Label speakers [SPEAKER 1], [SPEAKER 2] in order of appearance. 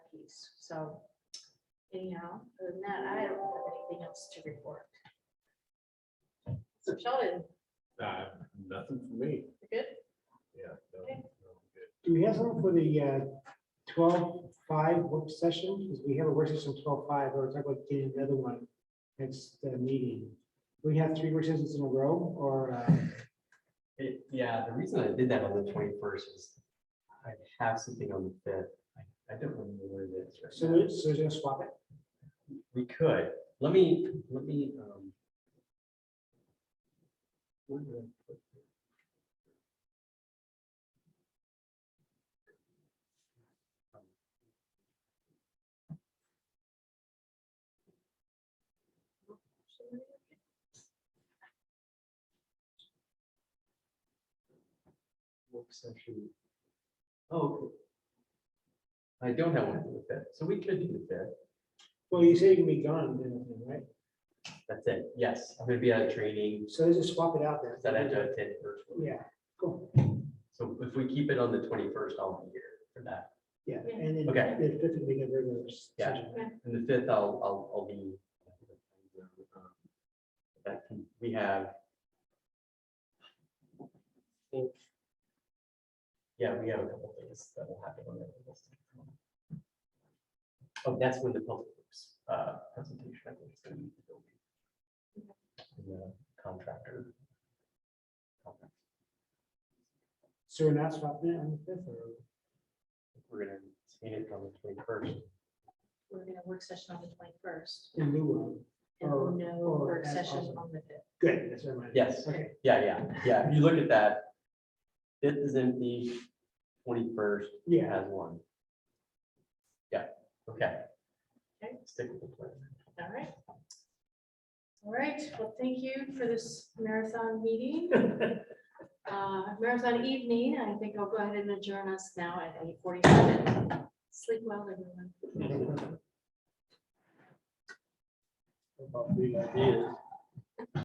[SPEAKER 1] committees, so anyhow, other than that, I don't have anything else to report. So Sheldon,
[SPEAKER 2] Uh, nothing for me,
[SPEAKER 1] you good?
[SPEAKER 2] yeah. no,
[SPEAKER 1] Okay.
[SPEAKER 2] no, good.
[SPEAKER 3] Do we have something for the uh, twelve five work session? Because we have a work session twelve five, or talk about getting another one next uh, meeting. We have three work sessions in a row, or uh,
[SPEAKER 4] It, yeah, the reason I did that on the twenty-first is I have something on the fifth. I I don't remember what it is. right
[SPEAKER 3] so
[SPEAKER 4] now.
[SPEAKER 3] we- so we're gonna swap it?
[SPEAKER 4] We could, let me, let me, um. where did I put it? Work session. Oh. okay. I don't have one for the fifth, so we could do the fifth.
[SPEAKER 3] Well, you say you can be gone, then, I think, right?
[SPEAKER 4] That's it, yes, I'm gonna be out of training,
[SPEAKER 3] So let's just swap it out then.
[SPEAKER 4] that I do attend virtually.
[SPEAKER 3] Yeah, cool.
[SPEAKER 4] So if we keep it on the twenty-first, I'll be here for that,
[SPEAKER 3] Yeah, and then
[SPEAKER 4] Okay.
[SPEAKER 3] the fifth will be a regular
[SPEAKER 4] Yeah.
[SPEAKER 3] session.
[SPEAKER 4] and the fifth, I'll, I'll, I'll be. That can- we have. I think- Yeah, we have a couple things that will happen on that. list. Oh, that's when the public works, uh, presentation, I think, is gonna be. the building. And the Contractor.
[SPEAKER 3] So we're not swapping it on the fifth, or?
[SPEAKER 4] We're gonna see it on the twenty-first.
[SPEAKER 1] We're gonna work session on the twenty-first
[SPEAKER 3] In lieu
[SPEAKER 1] and
[SPEAKER 3] Or-
[SPEAKER 1] no
[SPEAKER 3] or
[SPEAKER 1] work
[SPEAKER 3] as
[SPEAKER 1] session
[SPEAKER 3] also.
[SPEAKER 1] on the fifth.
[SPEAKER 3] of, good, that's what I meant.
[SPEAKER 4] Yes.
[SPEAKER 3] Okay,
[SPEAKER 4] Yeah, yeah, yeah. If you look at that, fifth is empty, twenty-first
[SPEAKER 3] yeah,
[SPEAKER 4] has one. Yeah, okay.
[SPEAKER 1] Okay.
[SPEAKER 4] Stick with the plan.
[SPEAKER 1] All right. All right, well, thank you for this marathon meeting. Uh, marathon evening, I think I'll go ahead and adjourn us now at eight forty-seven. Sleep well,
[SPEAKER 4] Mm-hmm.
[SPEAKER 1] everyone.
[SPEAKER 3] About the ideas.